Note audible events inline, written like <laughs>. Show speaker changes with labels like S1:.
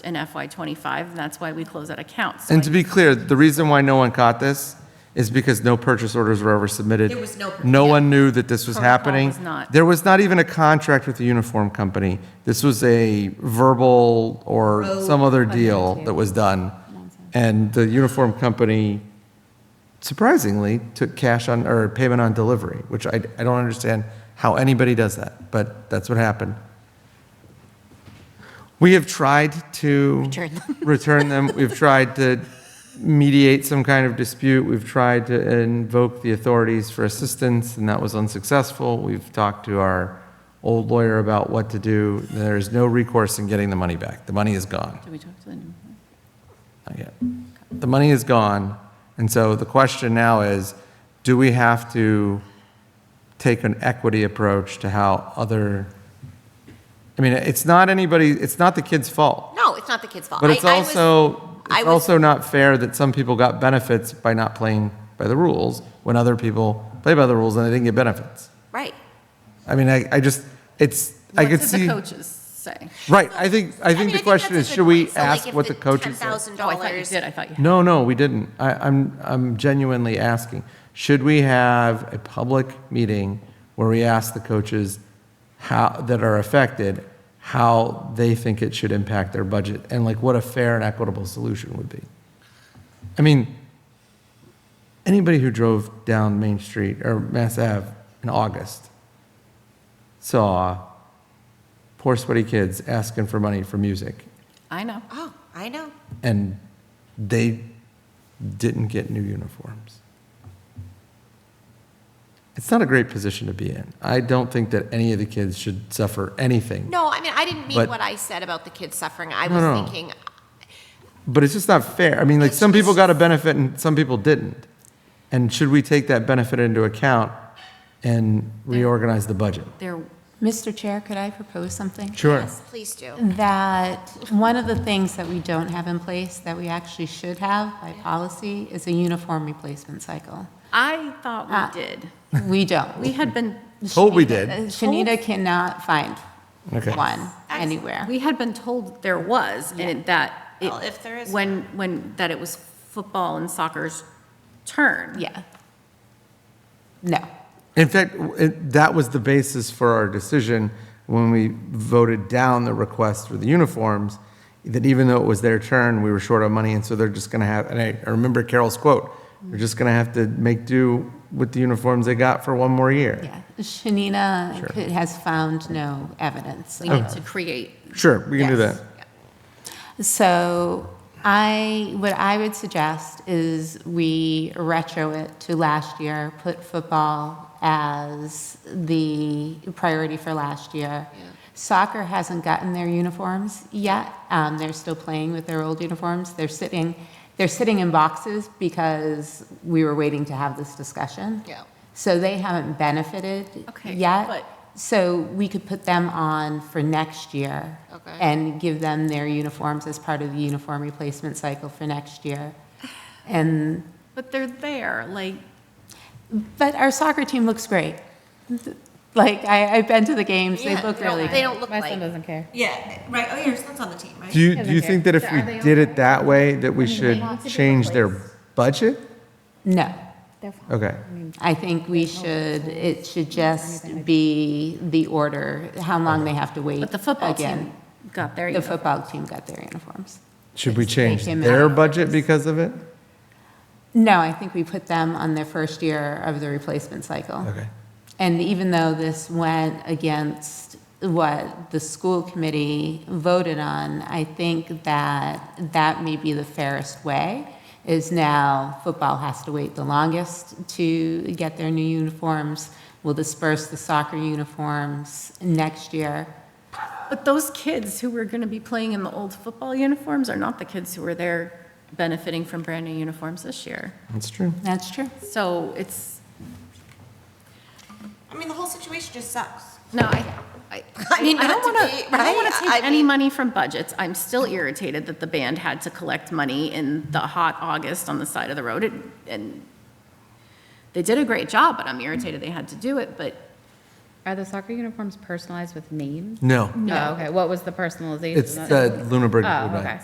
S1: in FY '25, and that's why we close that account. So
S2: And to be clear, the reason why no one caught this is because no purchase orders were ever submitted.
S3: There was no pur-
S2: No
S3: yeah.
S2: one knew that this was
S1: Protocol
S2: happening.
S1: was not-
S2: There was not even a contract with the uniform company. This was a verbal or some other deal that was done. And the uniform company surprisingly took cash on, or payment on delivery, which I, I don't understand how anybody does that, but that's what happened. We have tried <laughs>
S1: <laughs>
S2: to
S4: Return them.
S2: return them. We've tried to mediate some kind of dispute. We've tried to invoke the authorities for assistance, and that was unsuccessful. We've talked to our old lawyer about what to do. There is no recourse in getting the money back. The money is gone.
S1: Did we talk to the new-
S2: Not yet. The money is gone. And so the question now is, do we have to take an equity approach to how other, I mean, it's not anybody, it's not the kid's fault.
S4: No, it's not the kid's fault.
S2: But
S4: I-
S2: it's
S4: I was-
S2: also,
S4: I
S2: it's
S4: was-
S2: also not fair that some people got benefits by not playing by the rules when other people play by the rules and they didn't get benefits.
S4: Right.
S2: I mean, I, I just, it's, I
S1: What
S2: could
S1: did the
S2: see.
S1: coaches say?
S2: Right, I think, I think
S4: mean,
S2: the question
S4: that's
S2: is,
S4: a good
S2: should we
S4: point. So, like,
S2: ask
S4: if
S2: what the coaches
S4: Ten
S2: said?
S4: thousand
S1: Oh, I thought you
S4: dollars.
S1: did, I thought you had.
S2: No, no, we didn't. I, I'm, I'm genuinely asking. Should we have a public meeting where we ask the coaches how, that are affected, how they think it should impact their budget and like what a fair and equitable solution would be? I mean, anybody who drove down Main Street or Mass Ave in August saw poor sweaty kids asking for money for music
S1: I know.
S4: Oh, I know.
S2: and they didn't get new uniforms. It's not a great position to be in. I don't think that any of the kids should suffer anything,
S4: No, I mean, I didn't mean
S2: But-
S4: what I said about the kids suffering. I
S2: No,
S4: was
S2: no.
S4: thinking,
S2: but it's just not fair. I mean, like,
S4: It's-
S2: some people
S4: it's-
S2: got a benefit and some people didn't. And should we take that benefit into account and reorganize the budget?
S1: There,
S5: Mr. Chair, could I propose something?
S2: Sure.
S4: yes, please do.
S5: That one of the things that we don't have in place that we actually should have by policy is a uniform replacement cycle.
S1: I thought
S5: Ah.
S1: we did.
S5: We don't.
S1: We had been,
S2: Told we
S5: Shanita-
S2: did.
S5: uh, Shanita cannot find
S2: Okay.
S5: one anywhere.
S1: <laughs> we had been told there was, and it- that. it-
S3: Well, if there is-
S1: When, when, that it was football and soccer's turn.
S5: Yeah. No.
S2: In fact, w- it, that was the basis for our decision when we voted down the request for the uniforms, that even though it was their turn, we were short on money, and so they're just gonna have, and I, I remember Carol's quote, they're just gonna have to make do with the uniforms they got for one more year.
S5: Yeah. Shanita could- has found no evidence.
S1: We need to create
S2: Sure, we can do
S5: Yes.
S2: that.
S5: So I, what I would suggest is we retro it to last year, put football as the priority for last year. Soccer hasn't gotten their uniforms yet. Um, They're still playing with their old uniforms. They're sitting, they're sitting in boxes because we were waiting to have this discussion.
S4: Yeah.
S5: So they haven't benefited
S1: Okay, but-
S5: yet. So we could put them on for next year.
S4: Okay.
S5: And give them their uniforms as part of the uniform replacement cycle for next year. And,
S1: But they're there, like,
S5: but our soccer team looks great. Like, I, I've been to the games, they
S4: Yeah,
S5: look
S4: they don't-
S5: really
S4: They
S5: good.
S4: don't look like,
S6: doesn't care.
S3: Yeah, right, oh, yeah, your son's on the team, right?
S2: Do you, do you think that if we did it that way, that we should change their budget?
S5: No,
S2: Okay.
S5: I think we should, it should just be the order, how long they have to wait.
S1: but the football team
S5: again.
S1: got there.
S5: The football team got their uniforms.
S2: Should we change
S5: him
S2: their
S5: out.
S2: budget because of it?
S5: No, I think we put them on their first year of the replacement cycle.
S2: Okay.
S5: And even though this went against what the school committee voted on, I think that that may be the fairest way, is now football has to wait the longest to get their new uniforms. We'll disperse the soccer uniforms next year.
S1: But those kids who were going to be playing in the old football uniforms are not the kids who were there benefiting from brand new uniforms this year.
S2: That's true.
S5: That's true.
S1: So it's,
S3: I mean, the whole situation just sucks.
S1: no, I, I,
S4: I mean,
S1: I don't
S4: not to
S1: want
S4: be-
S1: to, I don't
S4: right?
S1: want to
S4: I
S1: take any
S4: mean-
S1: money from budgets. I'm still irritated that the band had to collect money in the hot August on the side of the road. and- And they did a great job, but I'm irritated they had to do it, but
S6: Are the soccer uniforms personalized with names?
S2: No,
S6: No. Okay, what was the personalization?
S2: it's the Lunenburg.
S6: Oh,
S2: Blue Line.
S6: okay.